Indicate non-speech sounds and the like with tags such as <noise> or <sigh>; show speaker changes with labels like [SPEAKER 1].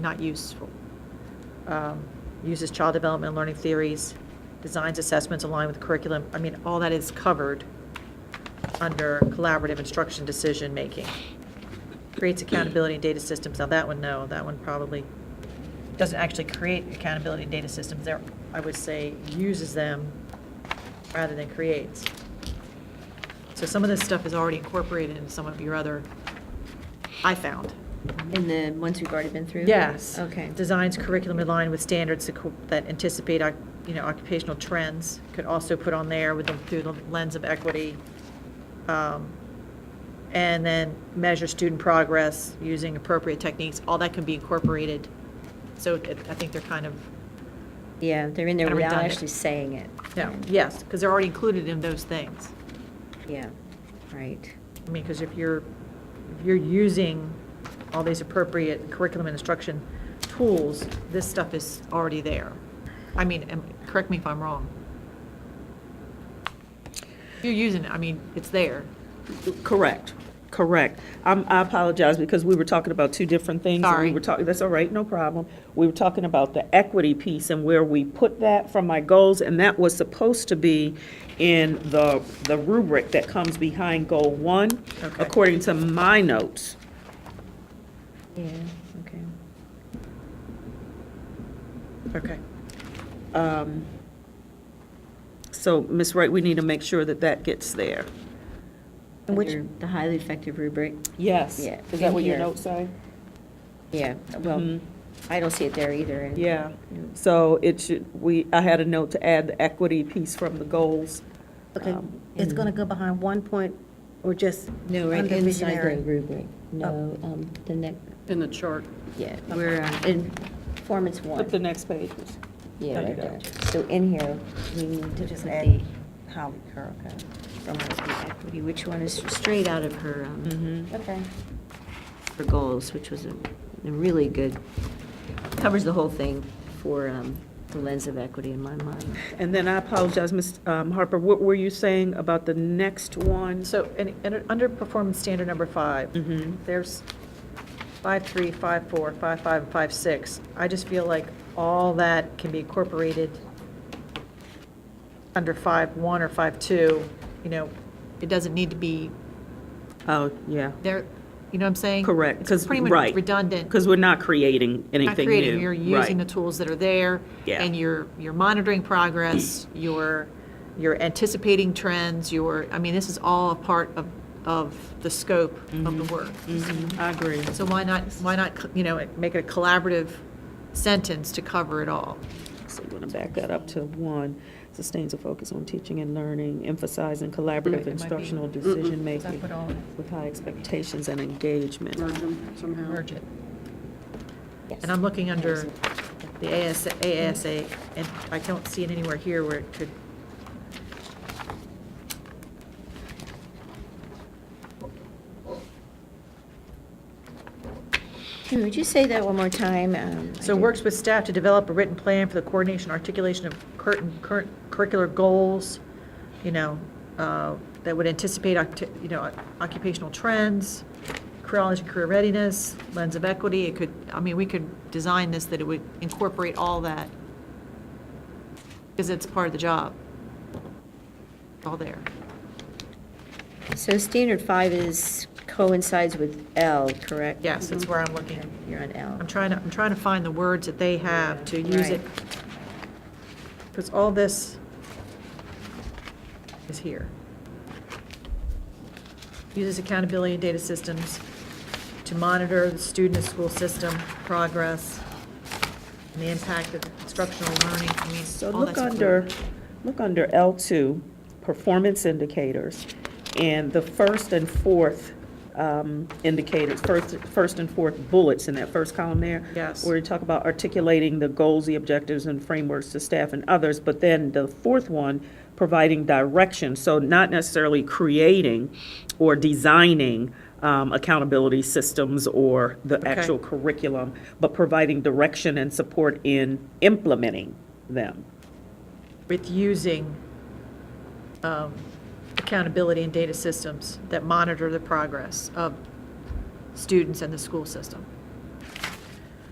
[SPEAKER 1] not useful. Um, Uses child development and learning theories, designs assessments aligned with curriculum. I mean, all that is covered under collaborative instruction decision-making. Creates accountability and data systems. Now, that one, no, that one probably doesn't actually create accountability and data systems. There, I would say, uses them rather than creates. So some of this stuff is already incorporated in some of your other, I found.
[SPEAKER 2] In the ones we've already been through?
[SPEAKER 1] Yes.
[SPEAKER 2] Okay.
[SPEAKER 1] Designs curriculum in line with standards that co- that anticipate, oc- you know, occupational trends. Could also put on there with, the- through the lens of equity. Um, And then measure student progress using appropriate techniques. All that can be incorporated. So it- I think they're kind of,
[SPEAKER 2] Yeah, they're in there
[SPEAKER 1] Kinda
[SPEAKER 2] without
[SPEAKER 1] redundant.
[SPEAKER 2] actually saying it.
[SPEAKER 1] no, yes, because they're already included in those things.
[SPEAKER 2] Yeah, right.
[SPEAKER 1] I mean, because if you're, if you're using all these appropriate curriculum and instruction tools, this stuff is already there. I mean, and correct me if I'm wrong. If you're using it, I mean, it's there.
[SPEAKER 3] Correct, correct. I'm, I apologize because we were talking about two different things. and
[SPEAKER 1] Sorry.
[SPEAKER 3] We were talking, that's all right, no problem. We were talking about the equity piece and where we put that from my goals, and that was supposed to be in the, the rubric that comes behind goal one,
[SPEAKER 1] Okay.
[SPEAKER 3] according to my notes.
[SPEAKER 2] Yeah, okay.
[SPEAKER 3] Okay. Um, So, Ms. Wright, we need to make sure that that gets there.
[SPEAKER 2] Which,
[SPEAKER 3] Under-
[SPEAKER 2] the highly effective rubric?
[SPEAKER 3] Yes.
[SPEAKER 2] Yeah,
[SPEAKER 3] Is that
[SPEAKER 2] in
[SPEAKER 3] what your
[SPEAKER 2] here.
[SPEAKER 3] notes say?
[SPEAKER 2] Yeah, well,
[SPEAKER 3] Mhm.
[SPEAKER 2] I don't see it there either. and-
[SPEAKER 3] Yeah,
[SPEAKER 2] Yeah.
[SPEAKER 3] so it should, we, I had a note to add the equity piece from the goals.
[SPEAKER 4] Okay,
[SPEAKER 3] Um,
[SPEAKER 4] it's gonna go behind one point, or just
[SPEAKER 2] No, right
[SPEAKER 4] under
[SPEAKER 2] inside the
[SPEAKER 4] visionary? Oh.
[SPEAKER 2] rubric. No, um, the next,
[SPEAKER 5] In the chart.
[SPEAKER 2] yeah, we're um, in performance
[SPEAKER 3] Flip the
[SPEAKER 2] one.
[SPEAKER 3] next page. Ms.
[SPEAKER 2] Yeah,
[SPEAKER 3] there you
[SPEAKER 2] right
[SPEAKER 3] go.
[SPEAKER 2] there. So in here, we need to put
[SPEAKER 4] Just add
[SPEAKER 2] the,
[SPEAKER 4] Holly Kerr, okay.
[SPEAKER 2] from the equity, which one is straight out of her, um,
[SPEAKER 3] Mm-hmm.
[SPEAKER 4] Okay.
[SPEAKER 2] for goals, which was a a really good, covers the whole thing for um, the lens of equity in my mind.
[SPEAKER 3] And then I apologize, Ms. um, Harper, what were you saying about the next one?
[SPEAKER 1] So, and, and under performance standard number five,
[SPEAKER 3] Mhm.
[SPEAKER 1] there's five, three, five, four, five, five, and five, six. I just feel like all that can be incorporated under five, one or five, two, you know, it doesn't need to be
[SPEAKER 3] Oh, yeah,
[SPEAKER 1] There, you know what I'm saying?
[SPEAKER 3] correct,
[SPEAKER 1] It's
[SPEAKER 3] because,
[SPEAKER 1] pretty
[SPEAKER 3] right.
[SPEAKER 1] much redundant.
[SPEAKER 3] Because we're not creating
[SPEAKER 1] Not
[SPEAKER 3] anything new.
[SPEAKER 1] creative. You're using the
[SPEAKER 3] Right.
[SPEAKER 1] tools that are there.
[SPEAKER 3] Yeah.
[SPEAKER 1] And you're, you're monitoring progress,
[SPEAKER 3] <clears throat>
[SPEAKER 1] you're, you're anticipating trends, you're, I mean, this is all a part of, of the scope of the work.
[SPEAKER 3] Mhm, I agree.
[SPEAKER 1] So why not, why not, you know, make it a collaborative sentence to cover it all?
[SPEAKER 3] So we're going to back that up to one, sustains a focus on teaching and learning, emphasizing collaborative
[SPEAKER 1] be-
[SPEAKER 3] instructional
[SPEAKER 1] Mm-mm.
[SPEAKER 3] decision-making
[SPEAKER 1] Put all in it.
[SPEAKER 3] with high expectations and engagement.
[SPEAKER 5] Merge them somehow.
[SPEAKER 1] merge it. And I'm looking under the ASA, ASA, and I don't see it anywhere here where it could.
[SPEAKER 2] Jim, would you say that one more time? Um, I
[SPEAKER 1] So
[SPEAKER 2] did-
[SPEAKER 1] works with staff to develop a written plan for the coordination, articulation of current, current curricular goals, you know, uh, that would anticipate, octi- you know, occupational trends, career knowledge and career readiness, lens of equity. It could, I mean, we could design this that it would incorporate all that. Because it's part of the job. All there.
[SPEAKER 2] So standard five is coincides with L, correct?
[SPEAKER 1] Yes, that's where I'm looking.
[SPEAKER 2] You're on L.
[SPEAKER 1] I'm trying to, I'm trying to find the words that they have to use it.
[SPEAKER 2] Right.
[SPEAKER 1] Because all this is here. Uses accountability and data systems to monitor the student and school system progress and the impact of instructional learning. I mean,
[SPEAKER 3] So
[SPEAKER 1] all
[SPEAKER 3] look
[SPEAKER 1] that's-
[SPEAKER 3] under, look under L2, performance indicators, and the first and fourth um, indicators, first, first and fourth bullets in that first column there.
[SPEAKER 1] Yes.
[SPEAKER 3] Where you talk about articulating the goals, the objectives, and frameworks to staff and others, but then the fourth one, providing direction, so not necessarily creating or designing um, accountability systems or the
[SPEAKER 1] Okay.
[SPEAKER 3] actual curriculum, but providing direction and support in implementing them.
[SPEAKER 1] With using um, accountability and data systems that monitor the progress of students and the school system.